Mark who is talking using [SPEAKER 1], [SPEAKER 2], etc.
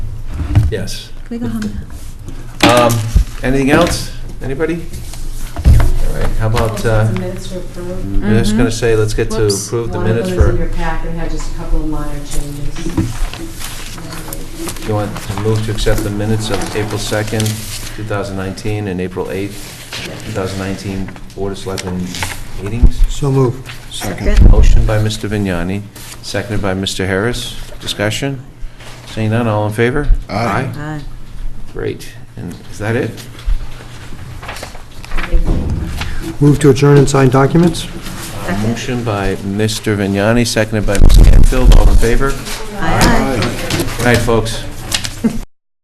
[SPEAKER 1] Yes.
[SPEAKER 2] Can we go home?
[SPEAKER 1] Um, Anything else? Anybody? All right, how about,
[SPEAKER 3] Also,
[SPEAKER 1] uh,
[SPEAKER 3] the minutes were approved.
[SPEAKER 1] I'm just going to
[SPEAKER 2] Mhm.
[SPEAKER 1] say, let's get to
[SPEAKER 2] Whoops.
[SPEAKER 1] approve the
[SPEAKER 3] One of
[SPEAKER 1] minutes
[SPEAKER 3] them is in your
[SPEAKER 1] for,
[SPEAKER 3] packet, had just a couple of minor changes.
[SPEAKER 1] you want to move to accept the minutes of April 2nd, 2019, and April 8th, 2019 Board of Selectmen meetings?
[SPEAKER 4] So move.
[SPEAKER 2] Second.
[SPEAKER 1] Motion by Mr. Vignani, seconded by Mr. Harris. Discussion? Seeing none, all in favor?
[SPEAKER 4] Aye.
[SPEAKER 2] Aye.
[SPEAKER 1] Great. And is that it?
[SPEAKER 4] Move to adjourn and sign documents?
[SPEAKER 1] A Motion by Mr. Vignani, seconded by Ms. Canfield. All in favor?
[SPEAKER 2] Aye.
[SPEAKER 1] All right, folks.